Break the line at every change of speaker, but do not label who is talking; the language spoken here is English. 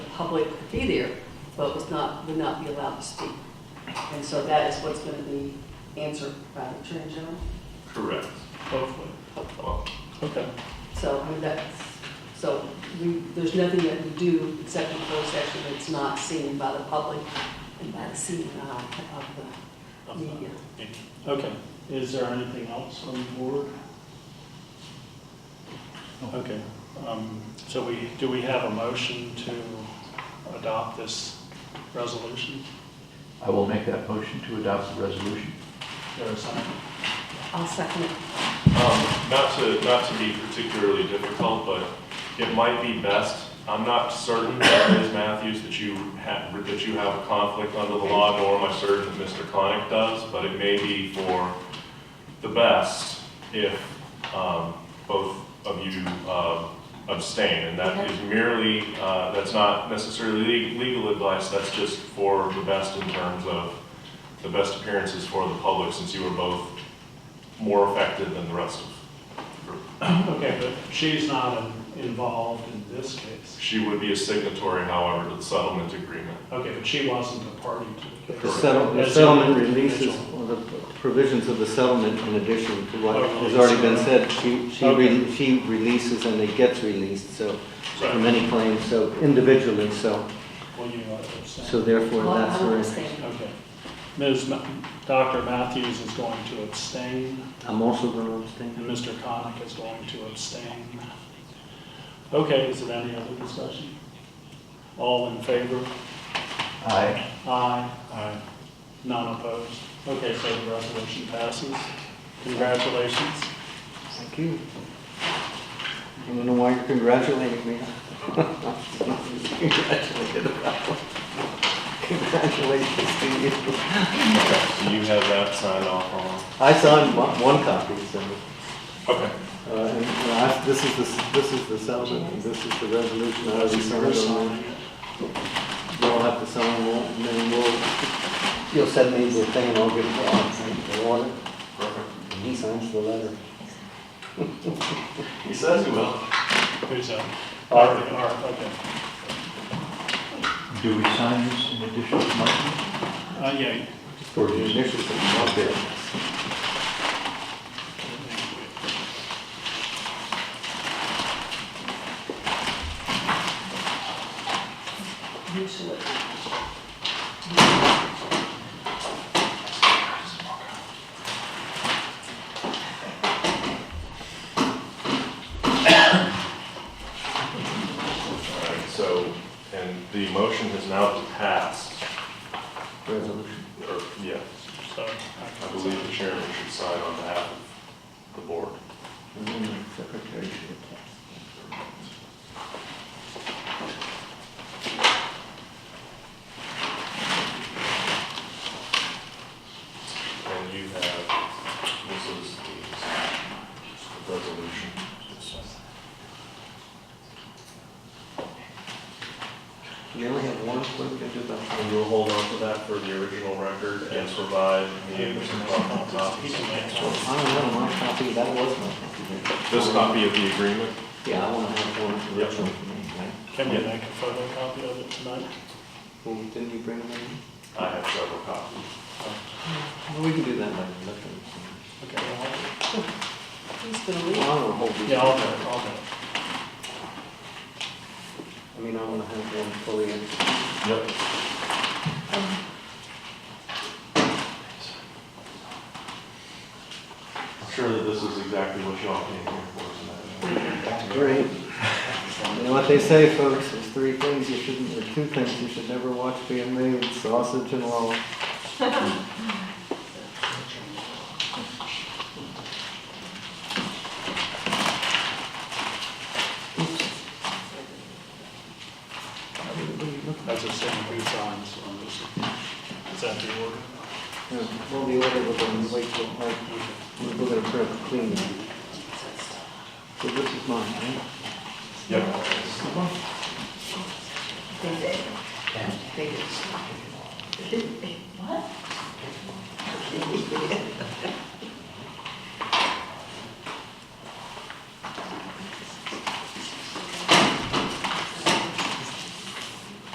public could be there, but was not, would not be allowed to speak. And so that is what's going to be answered by the Attorney General.
Correct, hopefully. Well,
Okay.
So, I mean, that's, so we, there's nothing that we do except in closed session that's not seen by the public and by the seen uh, of the media.
Okay, is there anything else on the board? Okay, um, so we, do we have a motion to adopt this resolution?
I will make that motion to adopt the resolution.
Is There is some,
I'll second it.
Um, not to, not to be particularly difficult, but it might be best, I'm not certain, Ms. Matthews, that you have, that you have a conflict under the law, nor am I certain that Mr. Connick does, but it may be for the best if, um, both of you, um, abstain. And that is merely, uh, that's not necessarily le- legal advice, that's just for the best in terms of the best appearances for the public, since you were both more affected than the rest of the group.
okay, but she's not in- involved in this case.
She would be a signatory, however, to the settlement agreement.
Okay, but she wasn't a party to the
The
case.
settle- the
As an
settlement releases,
individual.
or the provisions of the settlement in addition to what
Oh,
has already been
release.
said, she, she
Okay.
re- she releases and it gets released, so, from any claims, so individually, so,
Will you abstain?
so therefore
Well,
that's
I will
where,
abstain.
Okay. Ms., Ma- Dr. Matthews is going to abstain.
I'm also going to abstain.
And Mr. Connick is going to abstain. Okay, is there any other discussion? All in favor?
Aye.
Aye. Aye. None opposed? Okay, so the resolution passes. Congratulations.
Thank you. I don't know why you're congratulating me. Congratulated about. Congratulations to you.
Do you have that signed off on?
I signed one one copy, so.
Okay.
Uh, and, uh, I- This is the, this is the settlement, and this is the resolution, I already signed on it. You'll have to sign that, and then we'll, you'll send me the thing, and I'll give it to Ron, sign the warrant,
Perfect.
and he signs the letter.
He says he will.
Who's that?
Art.
Art, Art, okay.
Do we sign this in addition to mine?
Uh, yeah.
For the initials that you want there.
Usually.
All right, so, and the motion has now passed,
Resolution.
or, yeah,
So,
I believe the chairman should sign on behalf of the board.
And then the secretary should attest.
And you have, this is the resolution.
We only have one, what are we gonna do about that?
And you'll hold on to that for the original record and provide the Anderson
He can make
copy.
one.
I don't know, my copy, that was my copy. there.
This copy of the agreement?
Yeah, I wanna have one
Yep.
original for me, right?
Can we make a photocopy of it tonight?
Well, didn't you bring them in?
I have several copies.
Well, we can do that later, let them.
Okay, I'll-
Who's going to leave?
I'll hold these.
yeah, I'll do it, I'll do it.
I mean, I want to have one fully in.
Yep. I'm sure that this is exactly what y'all came here for tonight.
Great. You know what they say, folks, there's three things you shouldn't, or two things you should never watch being made, sausage and law.
That's the same three times on this. Is that the order?
Well, the order was on wait till, like, we're going to prep clean. So this is mine, right?
Yep.
They did. They did. What?